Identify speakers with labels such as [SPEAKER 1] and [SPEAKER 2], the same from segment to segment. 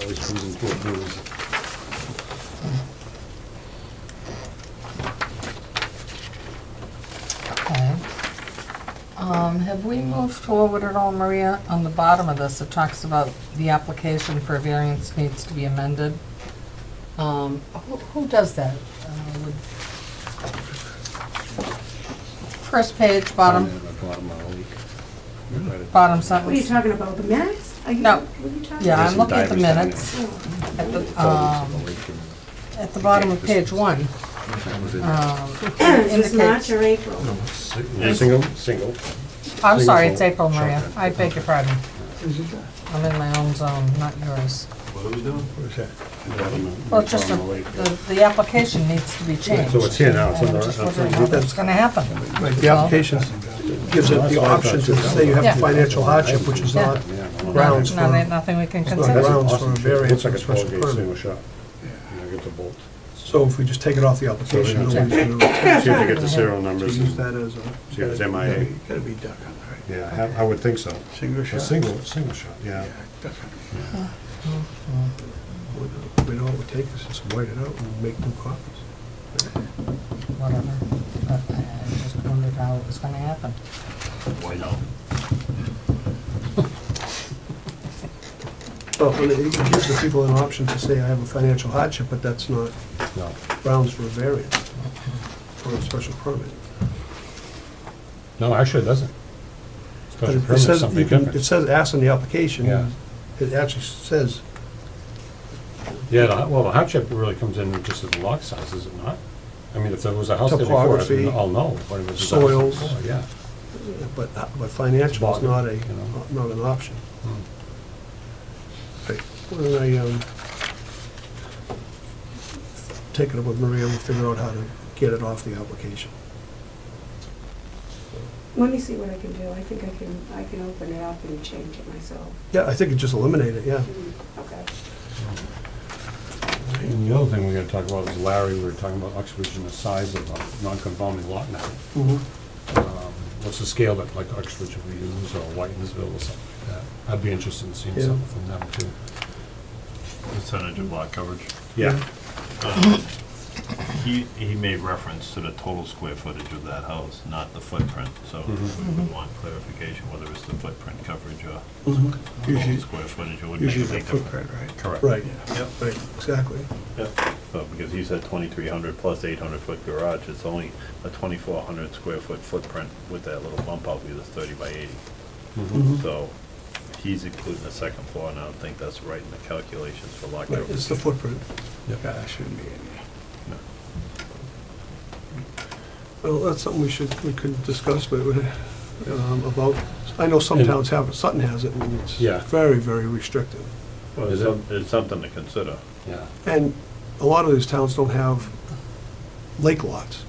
[SPEAKER 1] Always comes in four bills.
[SPEAKER 2] Okay. Um, have we moved forward at all, Maria? On the bottom of this, it talks about the application for variance needs to be amended. Um, who, who does that? Uh, would- First page, bottom,
[SPEAKER 1] Yeah, the Bottom of the leak. Right at-
[SPEAKER 2] bottom
[SPEAKER 3] What are you
[SPEAKER 2] sentence.
[SPEAKER 3] talking about, the minutes? Are you-
[SPEAKER 2] No.
[SPEAKER 3] What are you talking
[SPEAKER 2] Yeah,
[SPEAKER 3] about?
[SPEAKER 2] I'm looking at the
[SPEAKER 1] Divers down there.
[SPEAKER 2] minutes, at the,
[SPEAKER 1] Folds of
[SPEAKER 4] Uh,
[SPEAKER 2] um,
[SPEAKER 1] the leak and-
[SPEAKER 2] at the bottom of page one.
[SPEAKER 1] that was it.
[SPEAKER 2] um,
[SPEAKER 3] Is this March
[SPEAKER 2] indicates-
[SPEAKER 3] or April?
[SPEAKER 1] Single, single.
[SPEAKER 2] I'm sorry, it's
[SPEAKER 1] single
[SPEAKER 2] April, Maria.
[SPEAKER 1] shotgun.
[SPEAKER 2] I beg your pardon. I'm in my own zone, not yours. Well, it's just the, the- the application needs to be changed.
[SPEAKER 1] So it's here now, it's
[SPEAKER 2] And
[SPEAKER 1] on the-
[SPEAKER 2] I'm just
[SPEAKER 1] on the-
[SPEAKER 2] wondering how that's gonna happen.
[SPEAKER 4] Right, the application gives it the option to say you
[SPEAKER 2] Yeah.
[SPEAKER 4] have financial hardship, which is not grounds
[SPEAKER 2] No, there ain't
[SPEAKER 4] for,
[SPEAKER 2] nothing we can
[SPEAKER 4] not
[SPEAKER 2] consider.
[SPEAKER 4] grounds for a
[SPEAKER 1] Looks
[SPEAKER 4] variance
[SPEAKER 1] like
[SPEAKER 4] or
[SPEAKER 1] a
[SPEAKER 4] special
[SPEAKER 1] twelve gauge single
[SPEAKER 4] permit.
[SPEAKER 1] shot. You know, get the bolt.
[SPEAKER 4] So if we just take it off the application,
[SPEAKER 1] So
[SPEAKER 4] it'll
[SPEAKER 1] we
[SPEAKER 4] be zero.
[SPEAKER 1] See if you get the serial numbers.
[SPEAKER 4] Use that as a.
[SPEAKER 1] See, it's MIA.
[SPEAKER 4] Gotta be duck on right?
[SPEAKER 1] Yeah, I have- I would think so.
[SPEAKER 4] Single
[SPEAKER 1] A
[SPEAKER 4] shot.
[SPEAKER 1] single, single shot, yeah.
[SPEAKER 4] Yeah, duck hunter. We know what it would take us, just white it out and make new copies.
[SPEAKER 2] Whatever. But I I just wondered how it was gonna happen.
[SPEAKER 1] Why not?
[SPEAKER 4] Well, and it it gives the people an option to say, I have a financial hardship, but that's not
[SPEAKER 1] No.
[SPEAKER 4] grounds for a variance or a special permit.
[SPEAKER 1] No, actually, it doesn't.
[SPEAKER 4] But
[SPEAKER 1] Special
[SPEAKER 4] it- it
[SPEAKER 1] permit is
[SPEAKER 4] says, you
[SPEAKER 1] something
[SPEAKER 4] can- it
[SPEAKER 1] different.
[SPEAKER 4] says ask on the application.
[SPEAKER 1] Yeah.
[SPEAKER 4] It actually says,
[SPEAKER 1] Yeah, the- well, the hardship really comes in just at the lot size, is it not? I mean, if there was a house there before, I'd
[SPEAKER 4] Topography,
[SPEAKER 1] all know. but it was a house
[SPEAKER 4] soils.
[SPEAKER 1] before, Yeah.
[SPEAKER 4] but, but financial is not a,
[SPEAKER 1] It's bog,
[SPEAKER 4] not an option.
[SPEAKER 1] Hmm.
[SPEAKER 4] Right. Why don't I, um, take it up with Maria, we'll figure out how to get it off the application.
[SPEAKER 3] Let me see what I can do. I think I can, I can open it up and change it myself.
[SPEAKER 4] Yeah, I think it just eliminate it, yeah.
[SPEAKER 3] Okay.
[SPEAKER 1] And the other thing we gotta talk about is Larry, we were talking about Uxbridge and the size of a non-conforming lot now.
[SPEAKER 4] Mm-hmm.
[SPEAKER 1] Um, What's the scale that like Uxbridge would use or Whitensville or something like that? I'd be interested in seeing
[SPEAKER 4] Yeah.
[SPEAKER 1] something from them too.
[SPEAKER 5] Percentage of lot coverage.
[SPEAKER 1] Yeah,
[SPEAKER 5] Um, He, he made reference to the total square footage of that house, not the footprint, so
[SPEAKER 4] Mm-hmm.
[SPEAKER 5] we would want clarification whether it's the footprint coverage or total
[SPEAKER 4] Usually,
[SPEAKER 5] square footage, it would make a
[SPEAKER 4] Mm-hmm. usually the
[SPEAKER 5] big difference.
[SPEAKER 4] footprint, right?
[SPEAKER 5] Correct.
[SPEAKER 4] Right,
[SPEAKER 5] Yep,
[SPEAKER 4] right, exactly.
[SPEAKER 5] yep. So, because he said twenty-three hundred plus eight hundred foot garage, it's only a twenty-four hundred square foot footprint with that little bump out, because it's thirty by eighty.
[SPEAKER 4] Mm-hmm.
[SPEAKER 5] So, he's including the second floor, and I don't think that's right in the calculations for lot
[SPEAKER 4] Right,
[SPEAKER 5] coverage.
[SPEAKER 4] it's the footprint.
[SPEAKER 1] yeah.
[SPEAKER 4] that shouldn't be in there.
[SPEAKER 5] No.
[SPEAKER 4] Well, that's something we should, we could discuss, but, um, about, I know some
[SPEAKER 1] And-
[SPEAKER 4] towns have it, Sutton has it, and it's
[SPEAKER 1] Yeah.
[SPEAKER 4] very, very restrictive.
[SPEAKER 5] Well,
[SPEAKER 1] Is
[SPEAKER 5] it's
[SPEAKER 1] it?
[SPEAKER 5] some- it's something to consider.
[SPEAKER 1] Yeah.
[SPEAKER 4] And a lot of these towns don't have lake lots,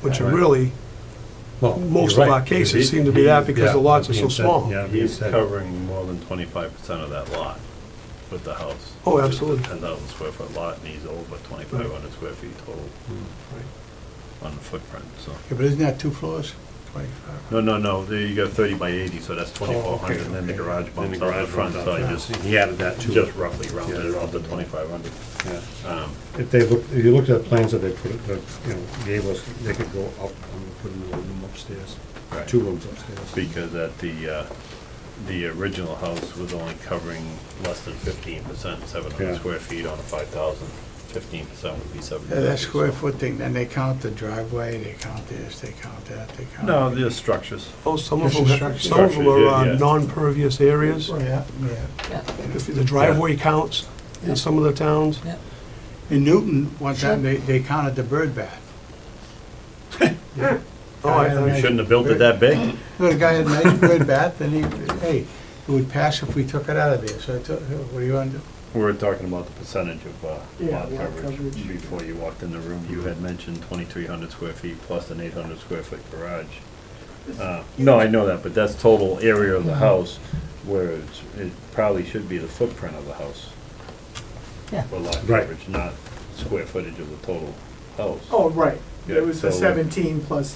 [SPEAKER 4] which are
[SPEAKER 1] Right.
[SPEAKER 4] really,
[SPEAKER 1] Well,
[SPEAKER 4] most
[SPEAKER 1] you're
[SPEAKER 4] of our
[SPEAKER 1] right.
[SPEAKER 4] cases
[SPEAKER 1] He-
[SPEAKER 4] seem to be
[SPEAKER 1] he-
[SPEAKER 4] that because
[SPEAKER 1] yeah,
[SPEAKER 4] the lots are
[SPEAKER 1] being
[SPEAKER 4] so
[SPEAKER 1] said-
[SPEAKER 4] small.
[SPEAKER 1] Yeah, being
[SPEAKER 5] He's
[SPEAKER 1] said,
[SPEAKER 5] covering more than twenty-five percent of that lot with the house.
[SPEAKER 4] Oh,
[SPEAKER 5] which is a
[SPEAKER 4] absolutely.
[SPEAKER 5] Ten thousand square foot lot, and he's over twenty-five hundred square feet total
[SPEAKER 1] Oh,
[SPEAKER 5] on the footprint, so.
[SPEAKER 6] Yeah, but isn't that two floors? Twenty-five.
[SPEAKER 5] No, no, no, there you got thirty by eighty, so that's twenty-four hundred, and then the
[SPEAKER 6] okay.
[SPEAKER 5] garage
[SPEAKER 1] Oh, Then the
[SPEAKER 5] bumps out the
[SPEAKER 1] garage
[SPEAKER 5] front,
[SPEAKER 1] runs
[SPEAKER 5] so
[SPEAKER 1] out,
[SPEAKER 5] I
[SPEAKER 1] yeah.
[SPEAKER 5] just,
[SPEAKER 1] He added that too.
[SPEAKER 5] just roughly rounded
[SPEAKER 1] Yeah.
[SPEAKER 5] it off to twenty-five hundred.
[SPEAKER 1] Yeah.
[SPEAKER 5] Um,
[SPEAKER 1] If they look, if you looked at plans that they put, that, you know, gave us, they could go up and put another room upstairs,
[SPEAKER 5] Right.
[SPEAKER 1] two rooms upstairs.
[SPEAKER 5] because at the, uh, the original house was only covering less than fifteen percent, seven
[SPEAKER 1] Yeah.
[SPEAKER 5] hundred square feet on a five thousand. Fifteen percent would be seven.
[SPEAKER 6] Yeah, that square foot thing, then they count the driveway, they count this, they count that, they count.
[SPEAKER 5] No, the structures.
[SPEAKER 4] oh, some of
[SPEAKER 6] This
[SPEAKER 4] them,
[SPEAKER 6] is
[SPEAKER 4] have- some of them are uh,
[SPEAKER 5] Yeah, yeah.
[SPEAKER 4] non-pervious areas.
[SPEAKER 6] Yeah, yeah.
[SPEAKER 2] Yeah,
[SPEAKER 4] If the driveway counts in some of the towns,
[SPEAKER 2] yeah.
[SPEAKER 6] In Newton, one
[SPEAKER 2] Sure.
[SPEAKER 6] time, they, they counted the bird bath.
[SPEAKER 4] oh, I,
[SPEAKER 6] Yeah,
[SPEAKER 5] We
[SPEAKER 4] I-
[SPEAKER 5] shouldn't have built it that big.
[SPEAKER 6] The guy had a nice bird bath, and he, hey, it would pass if we took it out of there, so I took, what do you want to do?
[SPEAKER 5] We were talking about the percentage of uh,
[SPEAKER 6] Yeah,
[SPEAKER 5] lot
[SPEAKER 6] lot
[SPEAKER 5] coverage
[SPEAKER 6] coverage.
[SPEAKER 5] before you walked in the room. You had mentioned 2,300 square feet plus an 800 square foot garage. Uh, No, I know that, but that's total area of the house, where it's- it probably should be the footprint of the house
[SPEAKER 2] Yeah.
[SPEAKER 5] for lot
[SPEAKER 1] Right.
[SPEAKER 5] coverage, not square footage of the total house.
[SPEAKER 7] Oh, right.
[SPEAKER 5] Yeah,
[SPEAKER 7] It was the
[SPEAKER 5] so- uh,
[SPEAKER 7] seventeen plus